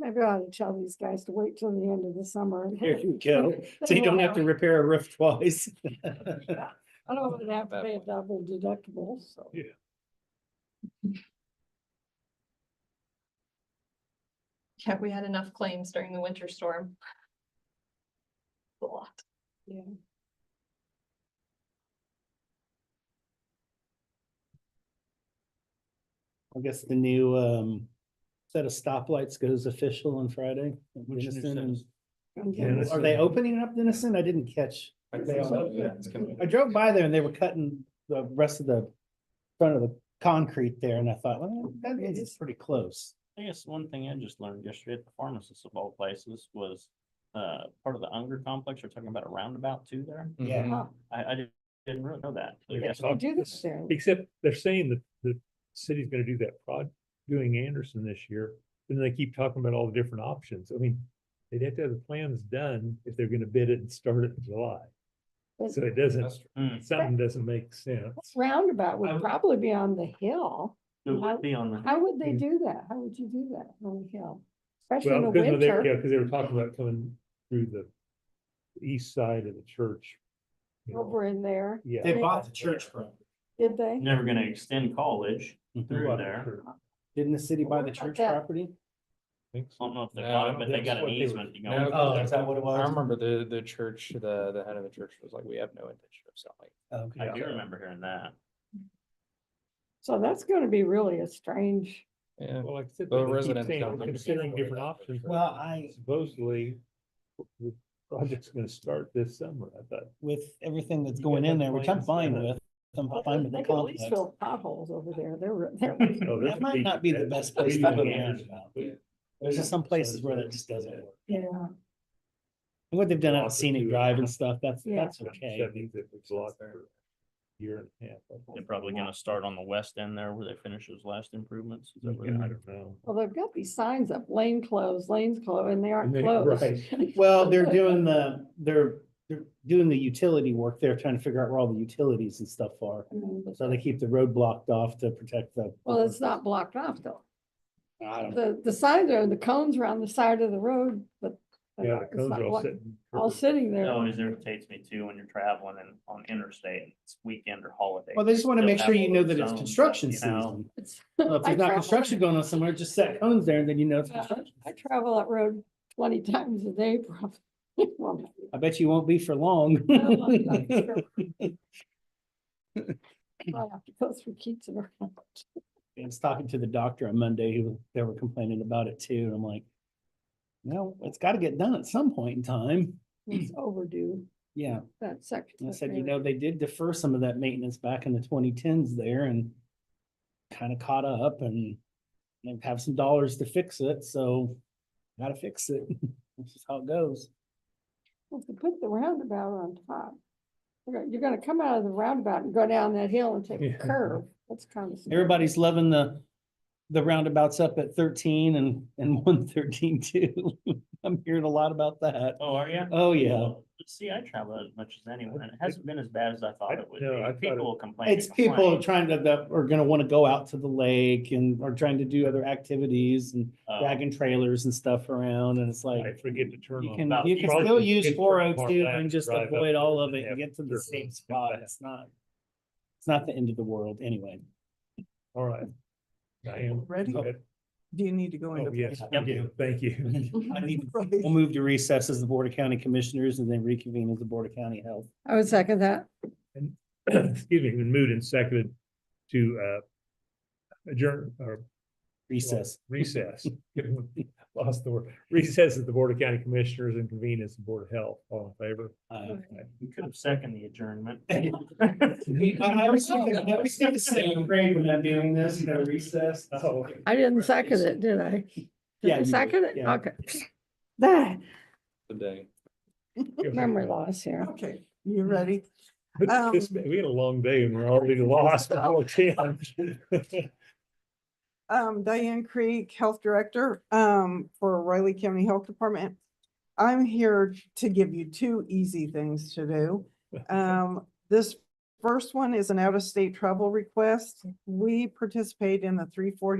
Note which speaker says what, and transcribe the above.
Speaker 1: Maybe I ought to tell these guys to wait till the end of the summer.
Speaker 2: There you go. So you don't have to repair a roof twice.
Speaker 1: I don't want to have to pay a double deductible, so.
Speaker 2: Yeah.
Speaker 3: Yeah, we had enough claims during the winter storm. A lot.
Speaker 1: Yeah.
Speaker 2: I guess the new um set of stoplights goes official on Friday. at
Speaker 4: Which new
Speaker 2: Denison
Speaker 4: set
Speaker 2: and-
Speaker 4: is-
Speaker 1: Okay.
Speaker 4: that's
Speaker 2: Are
Speaker 4: the-
Speaker 2: they opening up Denison? I didn't catch.
Speaker 4: I
Speaker 2: They
Speaker 4: think
Speaker 2: are.
Speaker 4: so, yeah, it's coming.
Speaker 2: I drove by there and they were cutting the rest of the front of the concrete there and I thought, well, that is pretty close.
Speaker 4: I guess one thing I just learned yesterday at the pharmacist of all places was, uh, part of the Unger complex, you're talking about a roundabout too there.
Speaker 2: Yeah.
Speaker 1: Oh,
Speaker 4: I, I didn't- didn't really know that. So
Speaker 5: Yeah,
Speaker 4: yeah,
Speaker 5: it's
Speaker 4: so-
Speaker 1: they Do this there.
Speaker 5: Except they're saying that the city's gonna do that prod, doing Anderson this year, and they keep talking about all the different options. I mean, they'd have to have the plans done if they're gonna bid it and start it in July.
Speaker 1: But
Speaker 5: So it doesn't,
Speaker 4: Mm,
Speaker 5: something doesn't make sense.
Speaker 1: this Roundabout
Speaker 4: I
Speaker 1: would
Speaker 4: would-
Speaker 1: probably be on the hill.
Speaker 4: It would be on the,
Speaker 1: How would they
Speaker 5: Mhm.
Speaker 1: do that? How would you do that on the hill? Especially in
Speaker 5: Well,
Speaker 1: the
Speaker 5: because of their-
Speaker 1: winter.
Speaker 5: yeah, because they were talking about coming through the east side of the church. you know.
Speaker 1: over in there,
Speaker 5: Yeah.
Speaker 1: They bought
Speaker 5: the church from.
Speaker 1: did they?
Speaker 4: never gonna extend college through there.
Speaker 2: Didn't the city
Speaker 1: What
Speaker 2: buy the
Speaker 1: about
Speaker 2: church
Speaker 1: that?
Speaker 2: property?
Speaker 4: I don't know if they
Speaker 6: No,
Speaker 4: bought
Speaker 6: I
Speaker 4: it,
Speaker 6: don't
Speaker 4: but they
Speaker 5: think
Speaker 4: got
Speaker 5: so.
Speaker 4: an
Speaker 5: They were-
Speaker 4: easement to go.
Speaker 6: No,
Speaker 4: in.
Speaker 2: Oh, is that what it
Speaker 6: I
Speaker 2: was?
Speaker 6: remember the, the church, the, the head of the church was like, we have no intention of selling.
Speaker 2: Okay.
Speaker 4: I do remember hearing that.
Speaker 1: So that's gonna be really a strange,
Speaker 6: Yeah.
Speaker 5: Well, like I said,
Speaker 6: The
Speaker 5: they keep
Speaker 6: residents
Speaker 5: saying
Speaker 6: don't
Speaker 5: we're
Speaker 6: understand
Speaker 5: Considering
Speaker 6: where
Speaker 5: different
Speaker 6: that
Speaker 5: options.
Speaker 6: comes from.
Speaker 2: Well, I,
Speaker 5: Supposedly, the project's gonna start this summer, I thought.
Speaker 2: with everything that's
Speaker 5: You
Speaker 2: going
Speaker 5: got
Speaker 2: in
Speaker 5: the
Speaker 2: there, which I'm
Speaker 5: plans
Speaker 2: fine
Speaker 5: there.
Speaker 2: with, I'm
Speaker 1: they
Speaker 2: fine with the
Speaker 1: could at least
Speaker 2: complex.
Speaker 1: fill potholes over there. They're, re- they're
Speaker 5: Oh,
Speaker 2: That
Speaker 5: that's
Speaker 2: might
Speaker 5: deep.
Speaker 2: not be the
Speaker 5: That's
Speaker 2: best place
Speaker 5: way
Speaker 2: to put
Speaker 5: down.
Speaker 2: a roundabout.
Speaker 5: Yeah.
Speaker 2: There's just some places where that just doesn't work.
Speaker 1: Yeah,
Speaker 2: And What they've done on
Speaker 5: Lots of
Speaker 2: scenic
Speaker 5: food.
Speaker 2: drive and stuff, that's,
Speaker 1: Yeah.
Speaker 2: that's okay.
Speaker 5: That means it was locked for a year and a half. I think.
Speaker 4: They're probably gonna start on the west end there where they finish those last improvements. Is that where
Speaker 5: Yeah,
Speaker 4: they're-
Speaker 5: I don't know.
Speaker 1: well, they've got these signs up, lane closed, lanes closed, and they aren't
Speaker 5: And they-
Speaker 1: closed.
Speaker 5: right.
Speaker 2: Well, they're doing the, they're, they're doing the utility work. They're trying to figure out where all the utilities and stuff are.
Speaker 1: Mm,
Speaker 2: So they keep the road blocked off to protect the.
Speaker 1: Well, it's not blocked off though.
Speaker 2: I don't,
Speaker 1: The, the signs are, the cones are on the side of the road, but. they're
Speaker 5: Yeah,
Speaker 1: not-
Speaker 5: the
Speaker 1: it's
Speaker 5: cones
Speaker 1: not
Speaker 5: are all
Speaker 1: blocked-
Speaker 5: sitting.
Speaker 1: All sitting
Speaker 4: It
Speaker 1: there.
Speaker 4: always irritates me too when you're traveling and on interstate, and it's weekend or holiday.
Speaker 2: well, they just want to
Speaker 4: They'll
Speaker 2: make sure
Speaker 4: have
Speaker 2: you
Speaker 4: all
Speaker 2: know
Speaker 4: those
Speaker 2: that it's
Speaker 4: zones,
Speaker 2: construction
Speaker 4: you know.
Speaker 2: season.
Speaker 1: It's-
Speaker 2: Well, If
Speaker 1: I
Speaker 2: there's not
Speaker 1: travel-
Speaker 2: construction going on somewhere, just set cones there and then you know it's
Speaker 1: Yeah.
Speaker 2: construction.
Speaker 1: I travel that road twenty times a day probably. Well,
Speaker 2: I bet you won't be for long.
Speaker 1: No, I'm not sure. I have to go through Keats and around.
Speaker 2: I was talking to the doctor on Monday, who, they were complaining about it too, and I'm like, no, it's gotta get done at some point in time.
Speaker 1: It's overdue,
Speaker 2: Yeah,
Speaker 1: that section.
Speaker 2: and I
Speaker 1: of
Speaker 2: said, you
Speaker 1: road.
Speaker 2: know, they did defer some of that maintenance back in the twenty tens there and kind of caught up and they have some dollars to fix it, so gotta fix it. This is how it goes.
Speaker 1: Well, If you put the roundabout on top, you're gonna- you're gonna come out of the roundabout and go down that hill and take a
Speaker 5: Yeah.
Speaker 1: curve. That's kind of.
Speaker 2: Everybody's loving the, the roundabouts up at thirteen and, and one thirteen too. I'm hearing a lot about that.
Speaker 4: Oh, are you?
Speaker 2: Oh, yeah.
Speaker 4: See, I travel as much as anyone, and it hasn't been as bad as I thought it would
Speaker 5: no, I
Speaker 4: be.
Speaker 5: thought it-
Speaker 4: People complain.
Speaker 2: It's people trying to, that are gonna wanna go out to the lake and are trying to do other activities and
Speaker 4: Uh,
Speaker 2: dragging trailers and stuff around and it's
Speaker 5: I
Speaker 2: like.
Speaker 5: forget to turn
Speaker 2: You
Speaker 5: on.
Speaker 2: can,
Speaker 4: about
Speaker 2: you can
Speaker 5: probably
Speaker 2: still
Speaker 5: you
Speaker 2: use
Speaker 5: can
Speaker 2: four
Speaker 5: turn
Speaker 2: oh
Speaker 5: far
Speaker 2: two
Speaker 5: back
Speaker 2: and
Speaker 5: and
Speaker 2: just
Speaker 5: drive up
Speaker 2: avoid all
Speaker 5: there
Speaker 2: of
Speaker 5: and
Speaker 2: it and
Speaker 5: have
Speaker 2: get to the
Speaker 5: turn
Speaker 2: same
Speaker 5: back.
Speaker 2: spot. It's not. It's not the end of the world anyway.
Speaker 5: All right. I am.
Speaker 7: Ready?
Speaker 5: Oh,
Speaker 7: Do you need to go into?
Speaker 5: yes,
Speaker 4: Yep.
Speaker 5: yeah, thank you.
Speaker 2: I need-
Speaker 7: Right.
Speaker 2: We'll move to recess as the Board of County Commissioners and then reconvene as the Board of County Health.
Speaker 1: I would second that.
Speaker 5: Excuse me, been moved and seconded to uh adjourn or
Speaker 2: Recess.
Speaker 5: recess. Lost the word. Recess at the Board of County Commissioners and convene as the Board of Health. All in favor?
Speaker 2: Uh,
Speaker 4: You could have seconded the adjournment.
Speaker 2: I I always think, I always think the same grade when I'm doing this, you know, recess. so-
Speaker 1: I didn't second it, did I? Did
Speaker 2: Yeah,
Speaker 1: I
Speaker 2: you did,
Speaker 1: second it?
Speaker 2: yeah.
Speaker 1: Okay. That
Speaker 6: Today.
Speaker 1: memory loss here.
Speaker 7: Okay, you ready? Um,
Speaker 5: This- We had a long day and we're already lost. all of 10.
Speaker 7: Um, Diane Creek, Health Director, um, for Riley County Health Department. I'm here to give you two easy things to do. Um, this first one is an out-of-state travel request. We participate in the three forty